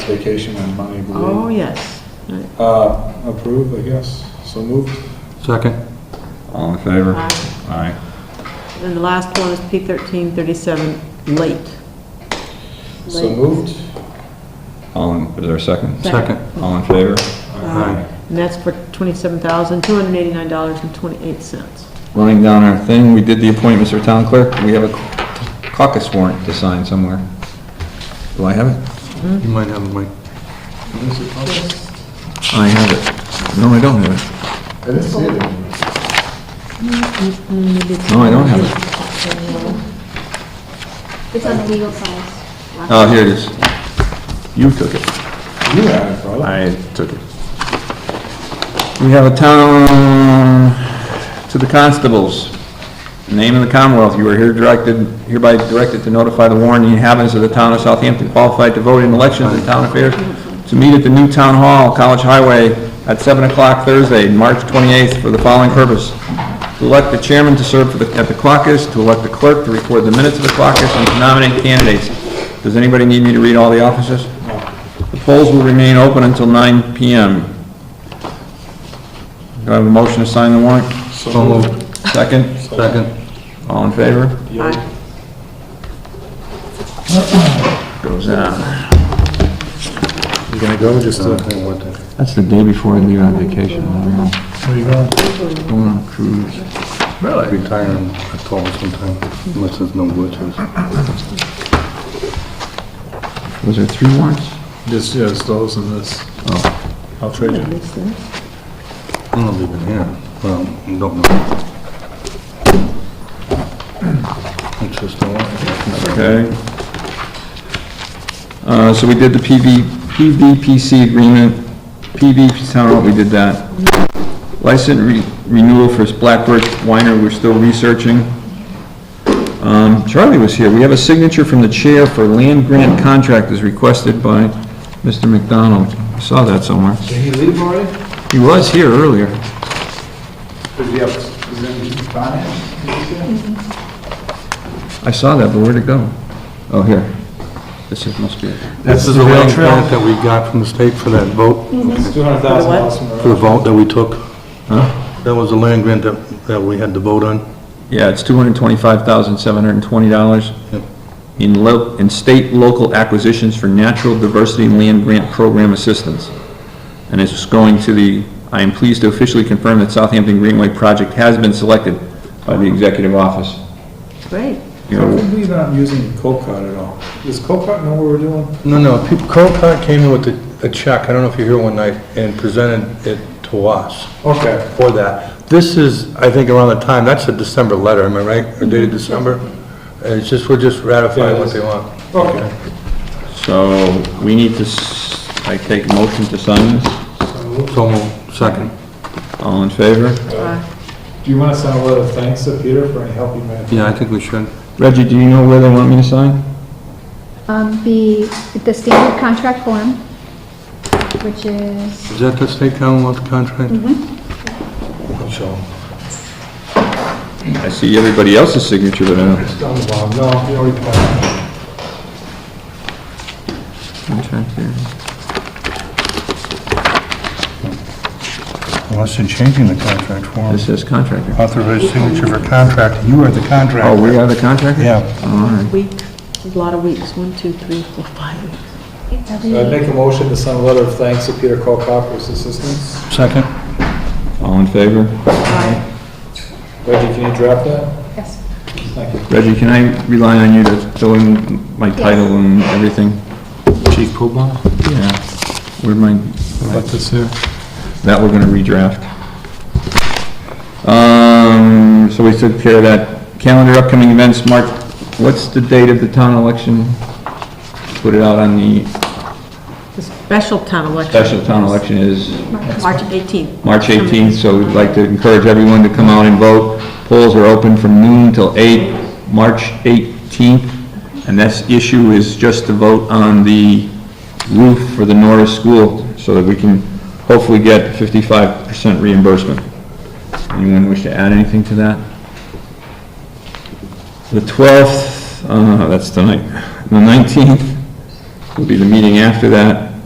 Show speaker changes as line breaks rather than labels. vacation and money
Oh,
relief.
yes. Right.
Uh, Approved, I guess, so moved.
Second.
All in favor?
Aye.
Aye.
And the last one is P thirteen thirty-seven, late.
So
Late.
moved.
All in, is there a second?
Second.
All in favor?
Aye.
And that's for twenty-seven thousand, two hundred and eighty-nine dollars and twenty-eight cents.
Running down our thing, we did the appointments for town clerk. We have a caucus warrant to sign somewhere. Do I have it?
You might have a mic.
I have it. No, I don't have it.
I didn't see it anywhere.
No, I don't have it.
It's on the legal side.
Oh, here it is. You took it.
Uh-huh. You had it, brother.
I took it. We have a town to the constables. Name of the Commonwealth, you are here directed, hereby directed to notify the warned inhabitants of the town of Southampton qualified to vote in elections and town affairs to meet at the new town hall, College Highway, at 7 o'clock Thursday, March 28th, for the following purpose: to elect the chairman to serve for the- at the caucus, to elect the clerk to record the minutes of the caucus, and to nominate candidates. Does anybody need me to read all the offices? The polls will remain open until 9 PM. Do I have a motion to sign the warrant?
So moved.
Second?
Second.
All in favor?
Aye.
Goes on.
You gonna go, just uh, to...
That's the day before I leave on vacation. I don't know.
Where you going?
Going on a cruise.
Really?
retiring at all sometime, unless there's no glitches.
Was there three warrants?
Just, yeah, it's those and this.
Oh.
I'll trade you.
Makes sense.
I'm not leaving here, well, I don't know. It's just a lot.
Okay. Uh, so we did the PV, PVPC agreement, PV, town hall, we did that. License re- renewal for Blackbird Winer, we're still researching. Um, Charlie was here, we have a signature from the chair for land grant contract as requested by Mr. McDonald. I Saw that somewhere.
Did he leave already?
He was here earlier.
Did he have, is there any finance?
I saw that, but where'd it go? Oh, here. This is, must be it.
This is the land grant that we got from the state for that vote,
It's two hundred thousand dollars from
for
the
the vote that we took. That was the land grant that, that we had to vote on.
Yeah, it's two hundred and twenty-five thousand, seven hundred and twenty dollars
Yep.
in lo, in state local acquisitions for natural diversity land grant program assistance. And it's going to the, I am pleased to officially confirm that Southampton Greenway project has been selected by the executive office.
Great.
You
How
know,
come we not using Copart at all? Does Copart know what we're doing?
No, no, people, Colcott came in with a, a check, I don't know if you're here one night, and presented it to us
Okay,
for that. This is, I think, around the time, that's a December letter, am I right? Or dated December? And it's just, we're just ratifying what they want.
okay.
So, we need to, s- I take a motion to sign this.
So moved. Second.
All in favor?
Do you want to send a letter of thanks to Peter for any help you may have?
Yeah, I think we should.
Reggie, do you know where they want me to sign?
Um, the, the standard contract form, which is,
Is that the state Commonwealth contract? So,
I see everybody else's signature, but I don't.
It's on the bottom, no, you already passed.
unless you're changing the contract form,
This says contractor.
authorized signature for contract, you are the contractor.
Oh, we are the contractor?
Yeah,
Uh, Week, a lot of weeks, one, two, three, four, five weeks.
every,
I'd make a motion to send a letter of thanks to Peter Copart for his assistance.
second.
All in favor?
Reggie, can you draft that?
yes,
Thank you.
Reggie, can I rely on you to fill in my title and everything?
Chief Poobah?
Yeah. Where my,
About this here?
that we're gonna redraft. Um, so we took care of that. Calendar upcoming events, March, what's the date of the town election? Put it out on the
The special town election.
special town election is
March eighteenth.
March 18th, so we'd like to encourage everyone to come out and vote. Polls are open from noon till 8, March 18th, and this issue is just to vote on the roof for the Norris School, so that we can hopefully get 55% reimbursement. Anyone wish to add anything to that? The 12th, uh, that's tonight, the 19th will be the meeting after that,